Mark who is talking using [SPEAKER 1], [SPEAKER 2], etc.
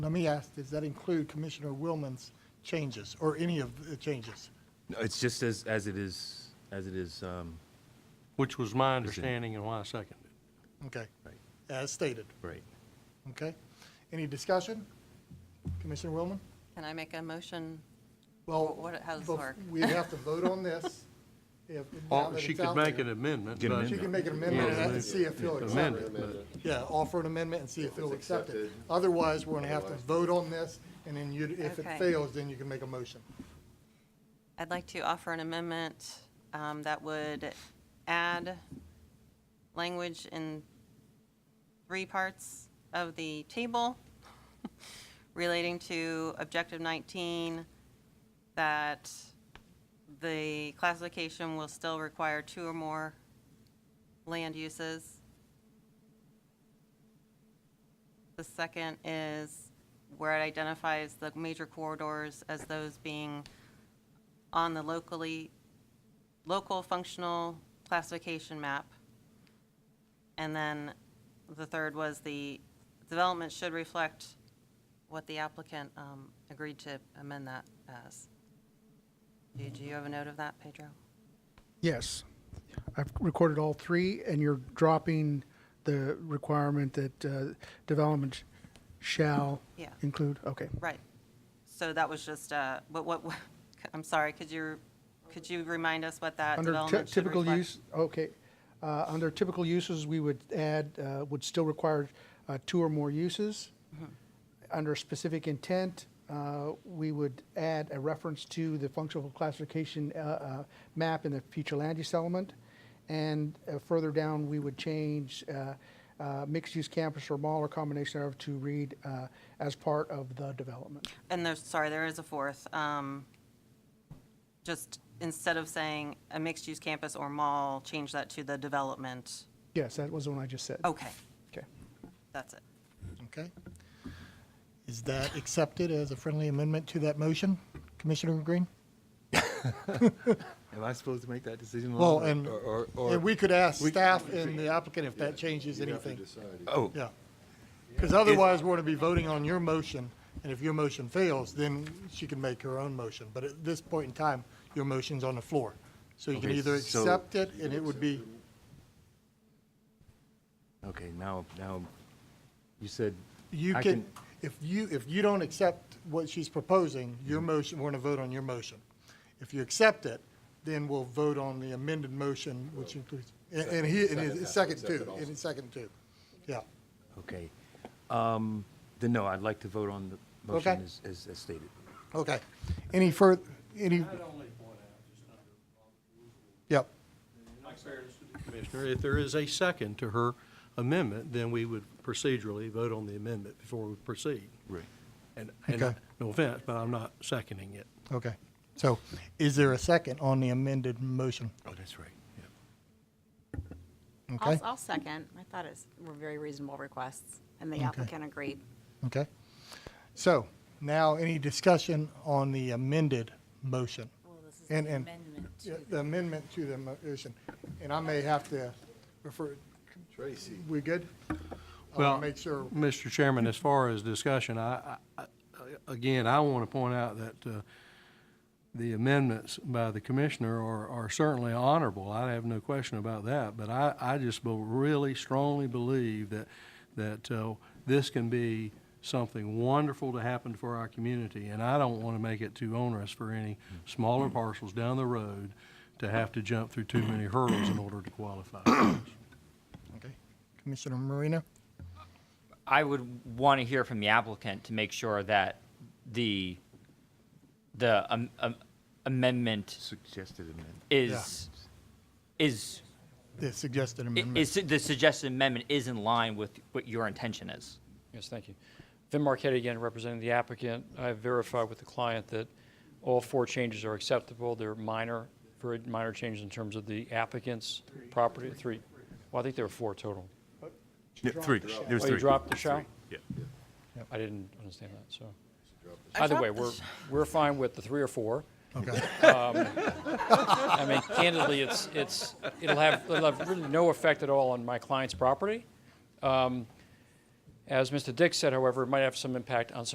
[SPEAKER 1] Let me ask, does that include Commissioner Willman's changes or any of the changes?
[SPEAKER 2] No, It's just as, as it is, as it is, um,
[SPEAKER 3] Which was my understanding and why I seconded.
[SPEAKER 1] Okay,
[SPEAKER 2] Right.
[SPEAKER 1] as stated,
[SPEAKER 2] right.
[SPEAKER 1] okay? Any discussion? Commissioner Willman?
[SPEAKER 4] Can I make a motion?
[SPEAKER 1] Well,
[SPEAKER 4] What- how does this
[SPEAKER 1] bef-
[SPEAKER 4] work?
[SPEAKER 1] we have to vote on this. if- now
[SPEAKER 3] Or
[SPEAKER 1] that
[SPEAKER 3] Oh, She
[SPEAKER 1] it's
[SPEAKER 3] could
[SPEAKER 1] out
[SPEAKER 3] make
[SPEAKER 1] there.
[SPEAKER 3] an amendment,
[SPEAKER 2] Get an
[SPEAKER 3] but
[SPEAKER 1] She
[SPEAKER 2] amendment.
[SPEAKER 1] can make an amendment
[SPEAKER 3] Yeah.
[SPEAKER 1] and see if he'll accept
[SPEAKER 3] amend
[SPEAKER 1] it.
[SPEAKER 3] it, but
[SPEAKER 1] Yeah, offer an amendment and see if they'll accept it.
[SPEAKER 5] accepted.
[SPEAKER 1] Otherwise, we're gonna have to vote on this, and then you, if it
[SPEAKER 4] Okay.
[SPEAKER 1] fails, then you can make a motion.
[SPEAKER 4] I'd like to offer an amendment um, that would add language in three parts of the table relating to Objective 19, that the classification will still require two or more land uses. The second is where it identifies the major corridors as those being on the locally, local functional classification map. And then the third was the development should reflect what the applicant um, agreed to amend that as. Do do you have a note of that, Pedro?
[SPEAKER 6] Yes. I've recorded all three, and you're dropping the requirement that uh, development shall
[SPEAKER 4] Yeah.
[SPEAKER 6] include, okay.
[SPEAKER 4] Right. So that was just, uh, but what, I'm sorry, could you, could you remind us what that
[SPEAKER 6] Under ty-
[SPEAKER 4] development should
[SPEAKER 6] typical
[SPEAKER 4] reflect?
[SPEAKER 6] use, okay. Uh, Under typical uses, we would add, uh, would still require uh, two or more uses.
[SPEAKER 4] Mm-hmm.
[SPEAKER 6] Under specific intent, uh, we would add a reference to the functional classification uh, uh, map in the future land use element. And uh, further down, we would change uh, uh, mixed-use campus or mall or combination thereof to read uh, as part of the development.
[SPEAKER 4] And there's, sorry, there is a fourth. um, Just instead of saying a mixed-use campus or mall, change that to the development.
[SPEAKER 6] Yes, that was the one I just said.
[SPEAKER 4] Okay,
[SPEAKER 6] Okay.
[SPEAKER 4] that's it.
[SPEAKER 1] Okay? Is that accepted as a friendly amendment to that motion, Commissioner Green?
[SPEAKER 2] Am I supposed to make that decision?
[SPEAKER 1] Well,
[SPEAKER 2] Lon?
[SPEAKER 1] and,
[SPEAKER 2] Or- or- or-
[SPEAKER 1] and we could ask staff and the applicant if that changes
[SPEAKER 5] You'd have to
[SPEAKER 1] anything.
[SPEAKER 5] decide.
[SPEAKER 2] Oh,
[SPEAKER 1] Yeah. Because otherwise, we're going to be voting on your motion, and if your motion fails, then she can make her own motion. But at this point in time, your motion's on the floor. So you can
[SPEAKER 2] Okay,
[SPEAKER 1] either
[SPEAKER 2] so-
[SPEAKER 1] accept it, and it would be,
[SPEAKER 2] okay, now, now, you said.
[SPEAKER 1] you
[SPEAKER 2] I
[SPEAKER 1] can, if you, if you don't accept what she's proposing, your
[SPEAKER 2] Mm-hmm.
[SPEAKER 1] motion, we're going to vote on your motion. If you accept it, then we'll vote on the amended motion, which includes, and- and he, and
[SPEAKER 5] Second
[SPEAKER 1] his
[SPEAKER 5] half,
[SPEAKER 1] second
[SPEAKER 5] accept it
[SPEAKER 1] two,
[SPEAKER 5] also.
[SPEAKER 1] and his second two. Yeah.
[SPEAKER 2] Okay. Um, Then no, I'd like to vote on the motion
[SPEAKER 1] Okay.
[SPEAKER 2] as- as as stated.
[SPEAKER 1] Okay. Any further, any,
[SPEAKER 3] I'd only point out, just under
[SPEAKER 1] yep,
[SPEAKER 3] my fairness to the commissioner, if there is a second to her amendment, then we would procedurally vote on the amendment before we proceed.
[SPEAKER 2] Right.
[SPEAKER 3] And, and, I-
[SPEAKER 1] Okay.
[SPEAKER 3] no offense, but I'm not seconding it.
[SPEAKER 1] okay. So is there a second on the amended motion?
[SPEAKER 2] Oh, that's right, yeah.
[SPEAKER 1] Okay,
[SPEAKER 7] I'll, I'll second. I thought it's, were very reasonable requests, and the applicant agreed.
[SPEAKER 1] okay. So now any discussion on the amended motion? And, and, Yeah, the amendment to the motion. And I may have to refer,
[SPEAKER 5] Tracy.
[SPEAKER 1] we good? I
[SPEAKER 3] Well,
[SPEAKER 1] want to make sure,
[SPEAKER 3] Mr. Chairman, as far as discussion, I, I- I- again, I want to point out that uh, the amendments by the commissioner are are certainly honorable. I have no question about that, but I, I just be- really strongly believe that, that uh, this can be something wonderful to happen for our community, and I don't want to make it too onerous for any smaller parcels down the road to have to jump through too many hurdles in order to qualify.
[SPEAKER 1] okay. Commissioner Marina?
[SPEAKER 8] I would want to hear from the applicant to make sure that the, the um, um, amendment
[SPEAKER 2] Suggested amendment.
[SPEAKER 8] is, is,
[SPEAKER 1] The suggested
[SPEAKER 8] i-
[SPEAKER 1] amendment.
[SPEAKER 8] is, the suggested amendment is in line with what your intention is.
[SPEAKER 9] Yes, thank you. Vin Marquette again, representing the applicant. I've verified with the client that all four changes are acceptable. They're minor, very minor changes in terms of the applicant's property, three. Well, I think there were four total.
[SPEAKER 2] Yeah, Three, there's
[SPEAKER 9] Oh,
[SPEAKER 2] three.
[SPEAKER 9] you dropped the shall?
[SPEAKER 2] Yeah.
[SPEAKER 9] I didn't understand that, so.
[SPEAKER 4] I
[SPEAKER 9] Either way,
[SPEAKER 4] dropped the
[SPEAKER 9] we're,
[SPEAKER 4] sh-
[SPEAKER 9] we're fine with the three or four.
[SPEAKER 1] Okay,
[SPEAKER 9] I mean, candidly, it's, it's, it'll have, it'll have really no effect at all on my client's property. Um, As Mr. Dick said, however, it might have some impact on some